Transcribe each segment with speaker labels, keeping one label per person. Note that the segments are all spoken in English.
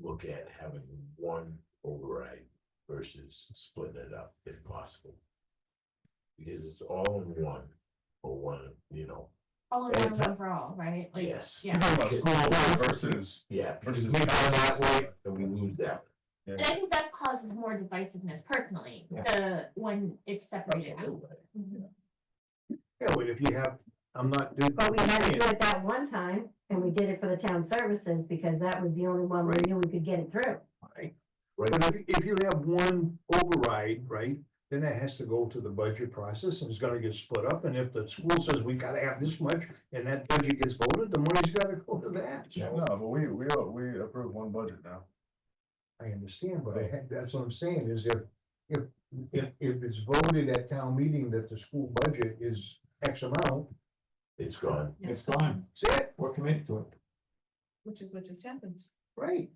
Speaker 1: look at having one override versus splitting it up if possible. Because it's all in one, or one, you know,
Speaker 2: All in one, one for all, right? Like,
Speaker 1: Yes.
Speaker 2: Yeah,
Speaker 3: You're talking about school board versus,
Speaker 1: yeah. because
Speaker 3: versus
Speaker 1: it's
Speaker 3: we buy that way.
Speaker 1: And we lose that,
Speaker 2: and I think that causes more divisiveness personally,
Speaker 3: Yeah.
Speaker 2: the, when it's separated out.
Speaker 1: absolutely.
Speaker 2: Mhm.
Speaker 4: Yeah, well, if you have, I'm not doing.
Speaker 5: But we had to do it that one time, and we did it for the town services, because that was the only one we knew we could get it through.
Speaker 4: But if, if you have one override, right, then that has to go to the budget process and it's gonna get split up. And if the school says we gotta have this much and that budget gets voted, the money's gotta go to that.
Speaker 3: Yeah,
Speaker 4: So
Speaker 3: no, but we, we, we approve one budget now.
Speaker 4: I understand, but I had, that's what I'm saying is if, if, if, if it's voted at town meeting that the school budget is X amount,
Speaker 1: It's gone.
Speaker 6: It's gone.
Speaker 4: that's it,
Speaker 6: We're committed to it.
Speaker 7: Which is what just happened.
Speaker 4: right?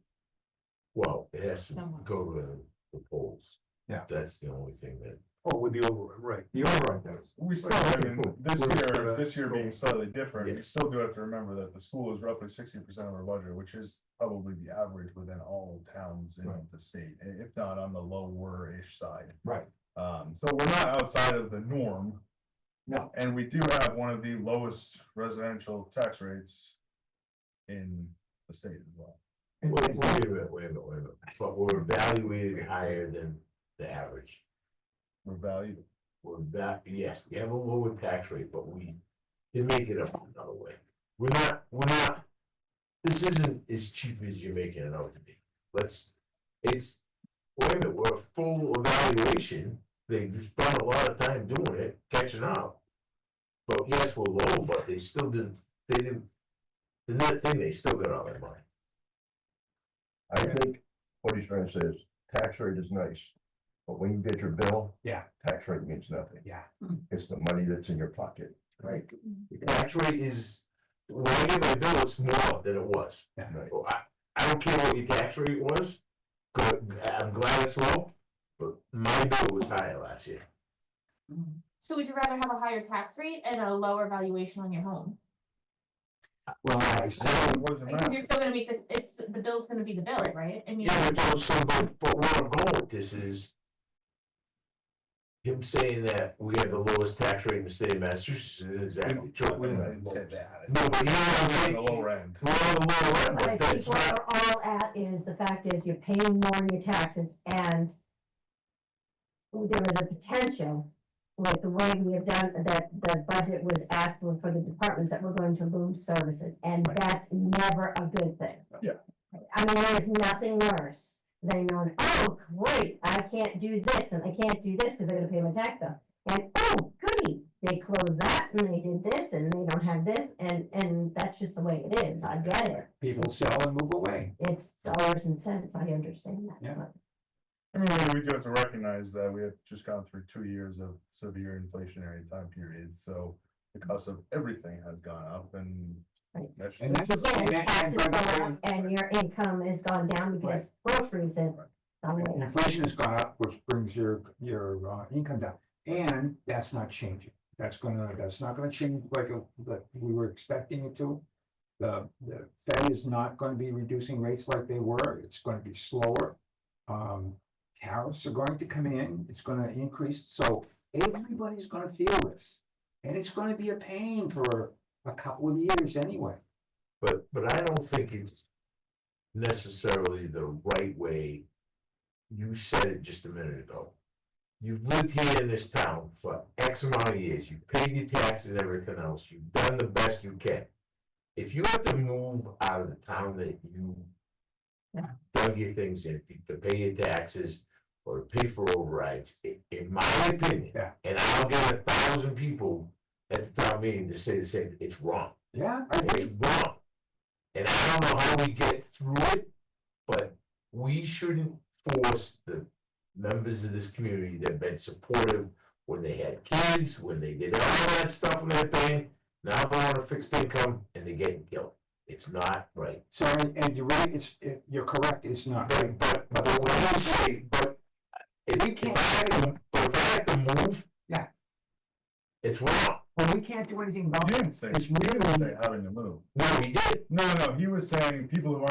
Speaker 1: Well, it has to
Speaker 7: Somewhat.
Speaker 1: go to the polls.
Speaker 3: Yeah.
Speaker 1: That's the only thing that,
Speaker 4: Oh, with the override, right.
Speaker 6: The override does.
Speaker 3: We still, I mean, this
Speaker 4: We're-
Speaker 3: year,
Speaker 4: we're-
Speaker 3: this year being slightly different,
Speaker 1: Yeah.
Speaker 3: we still do have to remember that the school is roughly sixty percent of our budget, which is probably the average within all towns in
Speaker 6: Right.
Speaker 3: the state, i- if not on the lower-ish side.
Speaker 6: Right.
Speaker 3: Um, so we're not outside of the norm.
Speaker 6: No.
Speaker 3: And we do have one of the lowest residential tax rates in the state as well.
Speaker 6: And
Speaker 1: wait,
Speaker 6: it's like-
Speaker 1: wait a minute, wait a minute, wait a minute, but we're evaluated higher than the average.
Speaker 3: We're valued.
Speaker 1: We're that, yes, we have a lower tax rate, but we can make it up another way. We're not, we're not. This isn't as cheap as you're making it out to be. Let's, it's, wait a minute, we're a full evaluation. They spent a lot of time doing it, catching up. But yes, we're low, but they still didn't, they didn't. Another thing, they still got all their money.
Speaker 8: I think what he's trying to say is tax rate is nice, but when you get your bill.
Speaker 6: Yeah.
Speaker 8: Tax rate means nothing.
Speaker 6: Yeah.
Speaker 8: It's the money that's in your pocket.
Speaker 6: Hmm. Right.
Speaker 1: The tax rate is, when I get my bill, it's more than it was.
Speaker 8: Right.
Speaker 1: Well, I, I don't care what your tax rate was, good, I'm glad it's low, but my bill was higher last year.
Speaker 2: So would you rather have a higher tax rate and a lower valuation on your home?
Speaker 6: Well, I said,
Speaker 3: What does it
Speaker 2: Because
Speaker 3: matter?
Speaker 2: you're still gonna make this, it's, the bill's gonna be the bill, right? I mean,
Speaker 1: Yeah, but so, but, but where I'm going with this is. Him saying that we have the lowest tax rate in the state of Massachusetts isn't exactly
Speaker 3: We
Speaker 1: true.
Speaker 3: didn't say that.
Speaker 1: No, but you know what I'm
Speaker 3: On
Speaker 1: saying?
Speaker 3: the lower end.
Speaker 1: We're on the lower end,
Speaker 5: But I
Speaker 1: but
Speaker 5: think
Speaker 1: that's
Speaker 5: what
Speaker 1: not,
Speaker 5: we're all at is, the fact is, you're paying more in your taxes, and there was a potential, with the way we have done, that the budget was asked for for the departments, that we're going to lose services, and that's never a good thing.
Speaker 3: Yeah.
Speaker 5: I mean, there's nothing worse than knowing, oh, great, I can't do this, and I can't do this, because they're gonna pay my tax bill. And, oh, goody, they closed that, and they did this, and they don't have this, and, and that's just the way it is, I get it.
Speaker 6: people sell and move away.
Speaker 5: It's dollars and cents, I understand that.
Speaker 6: Yeah.
Speaker 5: but-
Speaker 3: I mean, we do have to recognize that we have just gone through two years of severe inflationary time periods, so the cost of everything has gone up and.
Speaker 5: Right.
Speaker 3: that's-
Speaker 6: And that's the
Speaker 5: And
Speaker 6: thing. and that- and
Speaker 5: taxes
Speaker 6: by
Speaker 5: go
Speaker 6: the way,
Speaker 5: up and your income has gone down because groceries and.
Speaker 6: Inflation has gone up, which brings your, your uh, income down, and that's not changing. That's gonna, that's not gonna change like, uh, like we were expecting it to. The, the Fed is not gonna be reducing rates like they were, it's gonna be slower. Um, tariffs are going to come in, it's gonna increase, so everybody's gonna feel this. And it's gonna be a pain for a couple of years anyway.
Speaker 1: but, but I don't think it's. Necessarily the right way. You said it just a minute ago. You've lived here in this town for X amount of years, you've paid your taxes and everything else, you've done the best you can. If you have to move out of the town that you. Dug your things in, to pay your taxes or to pay for overrides, i- in my opinion.
Speaker 6: Yeah.
Speaker 1: And I'll get a thousand people at the town meeting to say the same, it's wrong.
Speaker 6: Yeah, I agree.
Speaker 1: It's wrong. And I don't know how we get through it, but we shouldn't force the members of this community that have been supportive when they had kids, when they did all that stuff and that thing. Now they want a fixed income and they're getting killed. It's not right.
Speaker 6: So, and- and you're right, it's, it- you're correct, it's not.
Speaker 1: But, but, but what I'm saying, but if
Speaker 6: We
Speaker 1: if
Speaker 6: can't-
Speaker 1: I had to, if I had to move.
Speaker 6: Yeah.
Speaker 1: It's wrong.
Speaker 6: Well, we can't do anything about
Speaker 3: You
Speaker 6: it.
Speaker 3: didn't say,
Speaker 6: It's
Speaker 3: you didn't
Speaker 6: really,
Speaker 3: say having to move.
Speaker 1: No, he did.
Speaker 3: No, no, he was saying people who aren't